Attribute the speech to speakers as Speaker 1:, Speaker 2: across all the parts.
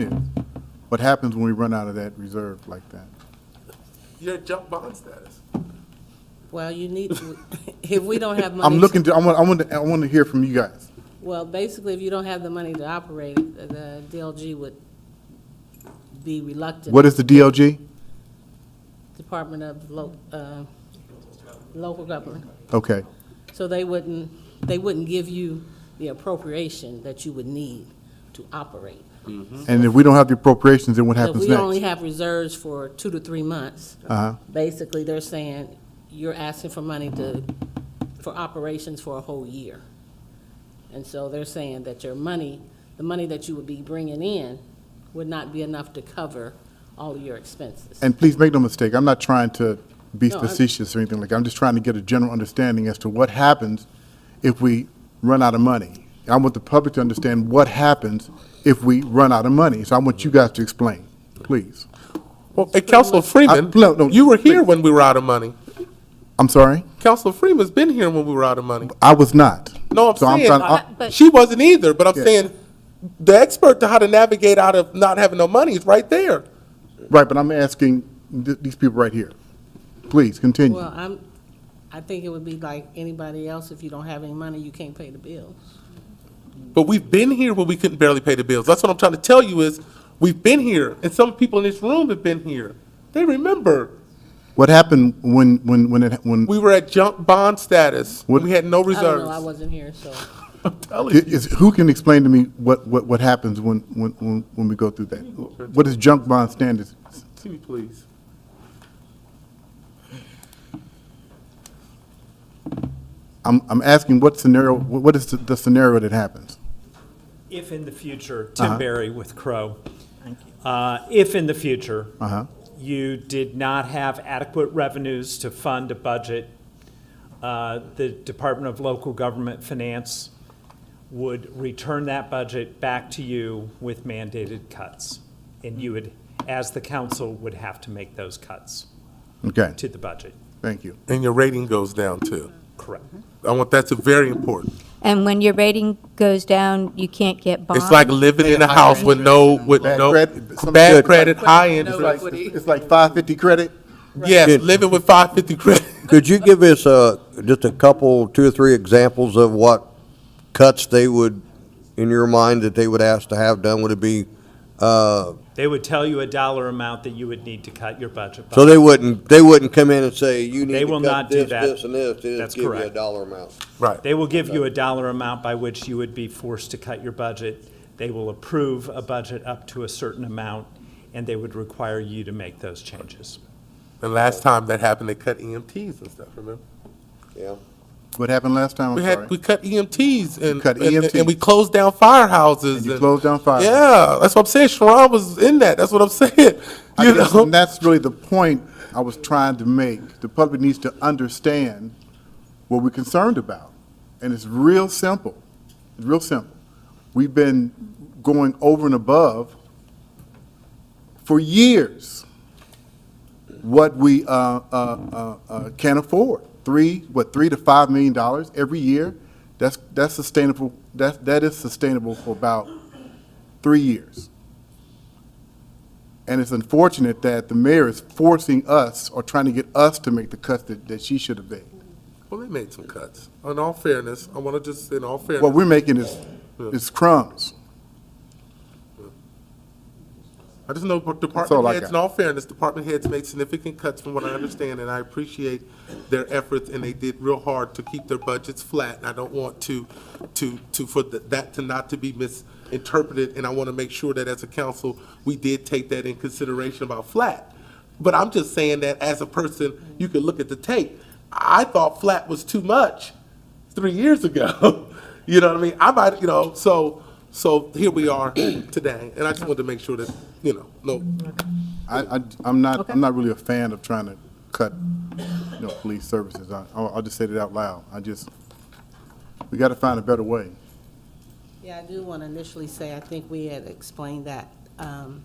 Speaker 1: is. What happens when we run out of that reserve like that?
Speaker 2: You had junk bond status.
Speaker 3: Well, you need, if we don't have money.
Speaker 1: I'm
Speaker 3: to-
Speaker 1: looking to, I want, I want, to- I want to hear from you guys.
Speaker 3: Well, basically, if you don't have the money to operate it, the- the DLG would be reluctant.
Speaker 1: What is the DLG?
Speaker 3: Department of Lo, uh, Local Government.
Speaker 1: Okay,
Speaker 3: So they wouldn't, they wouldn't give you the appropriation that you would need to operate.
Speaker 1: and if we don't have the appropriations, then what
Speaker 3: If
Speaker 1: happens
Speaker 3: we only
Speaker 1: next?
Speaker 3: have reserves for two to three months,
Speaker 1: Uh-huh,
Speaker 3: basically, they're saying, you're asking for money to, for operations for a whole year. And so they're saying that your money, the money that you would be bringing in would not be enough to cover all of your expenses.
Speaker 1: and please make no mistake, I'm not trying to be
Speaker 3: No, I'm-
Speaker 1: facetious or anything like, I'm just trying to get a general understanding as to what happens if we run out of money. I want the public to understand what happens if we run out of money, so I want you guys to explain, please.
Speaker 2: Well, and Councilor
Speaker 1: I-
Speaker 2: Freeman,
Speaker 1: no, no,
Speaker 2: you were here
Speaker 1: please.
Speaker 2: when we were out of money.
Speaker 1: I'm sorry?
Speaker 2: Councilor Freeman's been here when we were out of money.
Speaker 1: I was not.
Speaker 2: No, I'm
Speaker 1: So
Speaker 2: saying,
Speaker 1: trying-
Speaker 2: I-
Speaker 4: But-
Speaker 2: she wasn't either, but I'm
Speaker 1: Yeah.
Speaker 2: saying, the expert to how to navigate out of not having no money is right there.
Speaker 1: Right, but I'm asking th- these people right here. Please, continue.
Speaker 3: Well, I'm, I think it would be like anybody else, if you don't have any money, you can't pay the bills.
Speaker 2: But we've been here when we couldn't barely pay the bills. That's what I'm trying to tell you is, we've been here, and some people in this room have been here. They remember,
Speaker 1: What happened when, when, when it, when,
Speaker 2: we were at junk bond status,
Speaker 1: What-
Speaker 2: we had no
Speaker 3: I don't know, I
Speaker 2: reserves.
Speaker 3: wasn't here, so.
Speaker 2: I'm telling
Speaker 1: i-
Speaker 2: you.
Speaker 1: is, who can explain to me what, what, what happens when, when, when when we go through that? What is junk bond standards?
Speaker 2: See me, please.
Speaker 1: I'm, I'm asking what scenario, wh- what is the- the scenario that happens?
Speaker 5: If in the future,
Speaker 6: Uh-huh.
Speaker 5: Tim Berry with Crow. Thank you. If in the future,
Speaker 1: Uh-huh.
Speaker 5: you did not have adequate revenues to fund a budget, uh, the Department of Local Government Finance would return that budget back to you with mandated cuts. And you would, as the council, would have to make those cuts
Speaker 1: Okay,
Speaker 5: to the budget.
Speaker 1: thank you.
Speaker 2: And your rating goes down too.
Speaker 5: Correct.
Speaker 2: I want, that's very important.
Speaker 4: And when your rating goes down, you can't get bonds?
Speaker 2: It's like living in a house with no, with
Speaker 1: Bad
Speaker 2: no,
Speaker 1: credit, some
Speaker 2: bad
Speaker 1: good.
Speaker 2: credit, high end.
Speaker 3: No
Speaker 2: is like-
Speaker 3: equity.
Speaker 1: It's like five fifty credit?
Speaker 2: Yes, living with five fifty credit.
Speaker 6: Could you give us uh just a couple, two or three examples of what cuts they would, in your mind, that they would ask to have done? Would it be, uh,
Speaker 5: They would tell you a dollar amount that you would need to cut your budget by.
Speaker 6: so they wouldn't, they wouldn't come in and say, you need
Speaker 5: They
Speaker 6: to
Speaker 5: will
Speaker 6: cut
Speaker 5: not do
Speaker 6: this,
Speaker 5: that.
Speaker 6: this, and this, they
Speaker 5: That's
Speaker 6: just give you a
Speaker 5: correct.
Speaker 6: dollar amount?
Speaker 2: Right.
Speaker 5: They will give you a dollar amount by which you would be forced to cut your budget. They will approve a budget up to a certain amount, and they would require you to make those changes.
Speaker 2: And last time that happened, they cut EMTs and stuff, remember?
Speaker 6: Yeah.
Speaker 1: What happened last time?
Speaker 2: We
Speaker 1: I'm
Speaker 2: had, we
Speaker 1: sorry.
Speaker 2: cut EMTs and,
Speaker 1: cut
Speaker 2: and- and-
Speaker 1: EMTs.
Speaker 2: and we closed down firehouses.
Speaker 1: And you closed down firehouses.
Speaker 2: Yeah, that's what I'm saying. Sharon was in that. That's what I'm saying.
Speaker 1: I
Speaker 2: You
Speaker 1: guess-
Speaker 2: know?
Speaker 1: And that's really the point I was trying to make. The public needs to understand what we're concerned about. And it's real simple, It's real simple. We've been going over and above for years what we uh, uh, uh, uh, can afford. Three, what, three to five million dollars every year? That's, that's sustainable, that, that is sustainable for about three years. And it's unfortunate that the mayor is forcing us or trying to get us to make the cuts that, that she should have made.
Speaker 2: Well, they made some cuts. In all fairness, I want to just, in all
Speaker 1: What
Speaker 2: fairness,
Speaker 1: we're making is, is crumbs.
Speaker 2: I just know
Speaker 1: all
Speaker 2: department
Speaker 1: I
Speaker 2: heads,
Speaker 1: got.
Speaker 2: in all fairness, department heads made significant cuts from what I understand, and I appreciate their efforts, and they did real hard to keep their budgets flat, and I don't want to, to, to, for th- that to not to be misinterpreted, and I want to make sure that as a council, we did take that in consideration about flat. But I'm just saying that as a person, you can look at the tape. I thought flat was too much three years ago. You know what I mean? I might, you know, so, so here we are today, and I just wanted to make sure that, you know, no,
Speaker 1: I, I, I'm not, I'm not really a fan of trying to cut, you know, police services. I, I'll, I'll just say that out loud. I just, we gotta find a better way.
Speaker 3: Yeah, I do want to initially say, I think we had explained that um,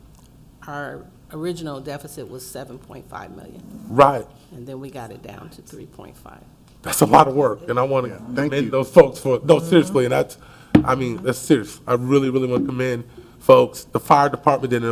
Speaker 3: our original deficit was 7.5 million,
Speaker 2: Right.
Speaker 3: and then we got it down to 3.5.
Speaker 2: That's a lot of work, and I want to
Speaker 1: Thank you.
Speaker 2: commend those folks for, no, seriously, and that's, I mean, that's serious. I really, really want to commend folks, the fire department did an